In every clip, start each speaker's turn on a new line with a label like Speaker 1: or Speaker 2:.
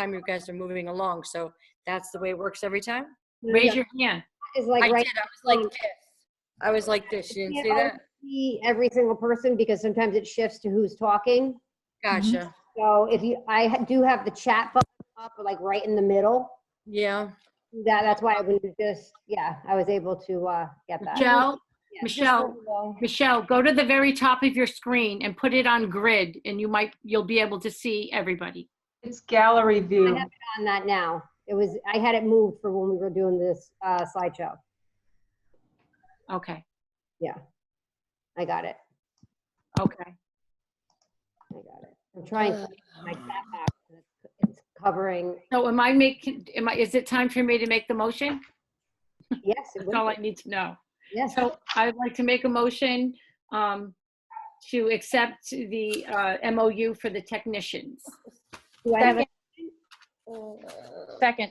Speaker 1: time you guys are moving along. So that's the way it works every time.
Speaker 2: Yeah,
Speaker 1: Raise your hand.
Speaker 2: It's
Speaker 1: I
Speaker 2: like
Speaker 1: did. I
Speaker 2: right.
Speaker 1: was like this. I was like this. You didn't see
Speaker 2: can't
Speaker 1: that?
Speaker 2: see Every single person, because sometimes it shifts to who's talking.
Speaker 1: Gotcha.
Speaker 2: So if you, I ha- do have the chat button up, like right in the middle.
Speaker 1: Yeah.
Speaker 2: That, that's why I was just, yeah, I was able to, uh, get that.
Speaker 3: Michelle,
Speaker 2: Yeah, just
Speaker 3: Michelle,
Speaker 2: so you know.
Speaker 3: Michelle, go to the very top of your screen and put it on grid and you might, you'll be able to see everybody.
Speaker 4: It's gallery view.
Speaker 2: have On that now. It was, I had it moved for when we were doing this, uh, slideshow.
Speaker 3: Okay,
Speaker 2: I got it.
Speaker 3: okay.
Speaker 2: I got it. I'm trying
Speaker 3: Uh.
Speaker 2: to get my chat back. and it's- It's covering,
Speaker 3: So am I making, am I, is it time for me to make the motion?
Speaker 2: yes, it
Speaker 3: That's all I
Speaker 2: would be.
Speaker 3: need to know.
Speaker 2: yes.
Speaker 3: So I'd like to make a motion um, to accept the uh, MOU for the technicians.
Speaker 2: Do I have a-
Speaker 5: Second.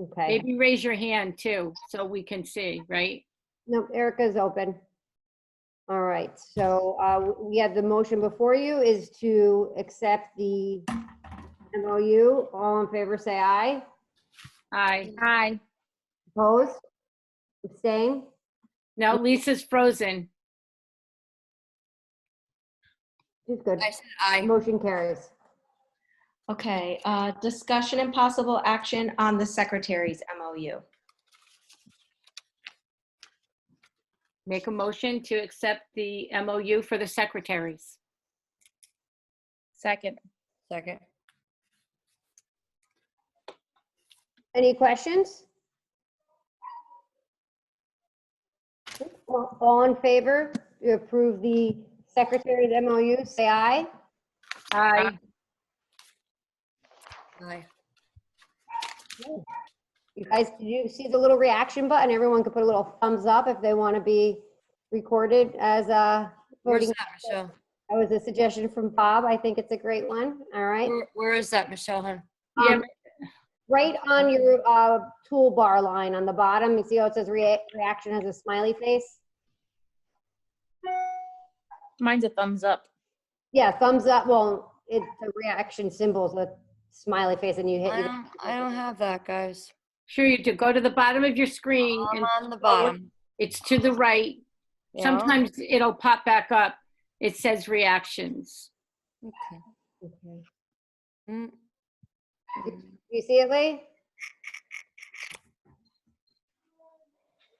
Speaker 2: Okay.
Speaker 3: Maybe raise your hand too, so we can see, right?
Speaker 2: No, Erica's open. All right, so uh, w- we have the motion before you is to accept the MOU. All in favor, say aye.
Speaker 3: Aye.
Speaker 5: Aye.
Speaker 2: Opposed? Abstain?
Speaker 3: Now Lisa's frozen.
Speaker 2: She's good.
Speaker 1: I said I.
Speaker 2: Motion carries.
Speaker 6: Okay, uh, discussion and possible action on the secretary's MOU.
Speaker 3: Make a motion to accept the MOU for the secretaries.
Speaker 5: Second.
Speaker 1: Second.
Speaker 2: Any questions? All all in favor to approve the secretary's MOU, say aye.
Speaker 3: Aye.
Speaker 1: Aye.
Speaker 2: You guys, did you see the little reaction button? Everyone could put a little thumbs up if they want to be recorded as a
Speaker 1: Where's
Speaker 2: voting.
Speaker 1: that, Michelle?
Speaker 2: That was a suggestion from Bob. I think it's a great one. All right.
Speaker 5: Mm.
Speaker 1: Where- Where is that, Michelle? hun?
Speaker 3: Yeah,
Speaker 2: Right on your uh, toolbar line on the bottom, you see how it says rea- reaction has a smiley face?
Speaker 5: Mine's a thumbs up.
Speaker 2: Yeah, thumbs up. Well, it's the reaction symbols with smiley face and you hit.
Speaker 1: I
Speaker 5: Ah.
Speaker 1: don't, I don't have that, guys.
Speaker 3: Sure you do. Go to the bottom of your
Speaker 1: I'm
Speaker 3: screen and
Speaker 1: on the bottom.
Speaker 3: it's to the right.
Speaker 1: Yeah.
Speaker 3: Sometimes it'll pop back up. It says reactions.
Speaker 1: Okay.
Speaker 2: Okay.
Speaker 1: Mm.
Speaker 2: You see it, Lee?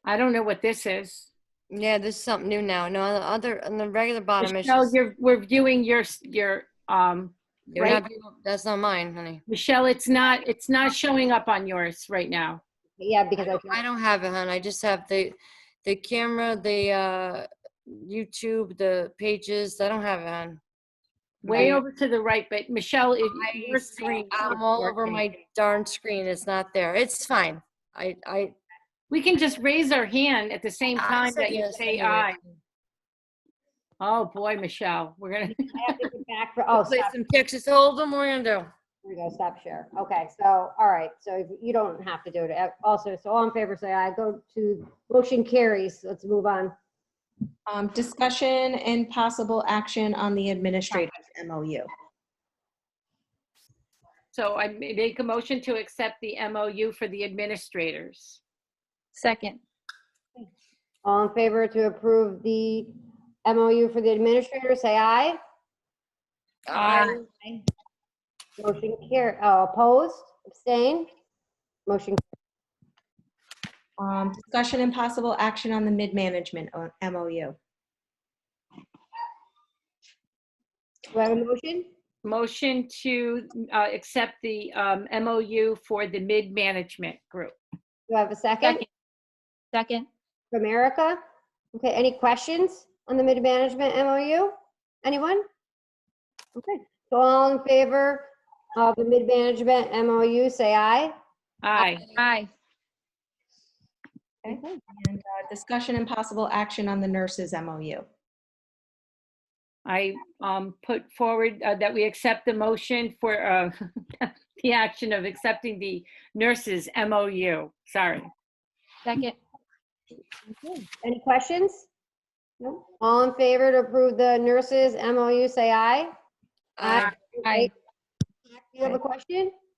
Speaker 3: I don't know what this is.
Speaker 1: Yeah, this is something new now. No, on the other, on the regular bottom is
Speaker 3: Michelle,
Speaker 1: just,
Speaker 3: you're, we're viewing your, s- your, um,
Speaker 1: you're
Speaker 3: right-
Speaker 1: not doing- that's not mine, honey.
Speaker 3: Michelle, it's not, it's not showing up on yours right now.
Speaker 2: Yeah, because I,
Speaker 1: I don't have it, hon. I just have the, the camera, the, uh, YouTube, the pages. I don't have it, hon.
Speaker 3: Way
Speaker 1: Right.
Speaker 3: over to the right, but Michelle, it- your
Speaker 1: I
Speaker 3: screen.
Speaker 1: see, I'm all over my darn screen. It's not there. It's fine. I, I.
Speaker 3: We can just raise our hand at the same
Speaker 1: I
Speaker 3: time
Speaker 1: said
Speaker 3: that you
Speaker 1: Ah, yes
Speaker 3: say
Speaker 1: anyway.
Speaker 3: aye. Oh, boy, Michelle, we're gonna,
Speaker 2: I have to get back for, oh,
Speaker 1: Play
Speaker 2: stop.
Speaker 1: some Texas Hold'em. What are you gonna do?
Speaker 2: There we go, stop share. Okay, so, all right, so if- you don't have to do it. Uh, Also, so all in favor, say aye. Go to, motion carries. Let's move on.
Speaker 6: Um, discussion and possible action on the administrator's MOU.
Speaker 3: so I ma- make a motion to accept the MOU for the administrators.
Speaker 5: Second.
Speaker 2: All in favor to approve the MOU for the administrator, say aye.
Speaker 1: Aye.
Speaker 2: Motion carry, oh, opposed, abstained? Motion,
Speaker 6: Um, discussion and possible action on the mid-management uh, o- MOU.
Speaker 2: do I have a motion?
Speaker 3: Motion to uh, accept the um, MOU for the mid-management group.
Speaker 2: Do I have a second
Speaker 5: Second. Second.
Speaker 2: from Erica? Okay, any questions on the mid-management MOU? Anyone? Okay, so all in favor of the mid-management MOU, say aye.
Speaker 3: Aye.
Speaker 5: Aye.
Speaker 6: And uh, discussion and possible action on the nurses MOU.
Speaker 3: I um, put forward uh, that we accept the motion for uh, the action of accepting the nurses MOU. Sorry.
Speaker 5: Second.
Speaker 2: Any questions? No? All in favor to approve the nurses MOU, say aye.
Speaker 1: Aye.
Speaker 2: Aye.
Speaker 5: Aye.
Speaker 2: You have a question?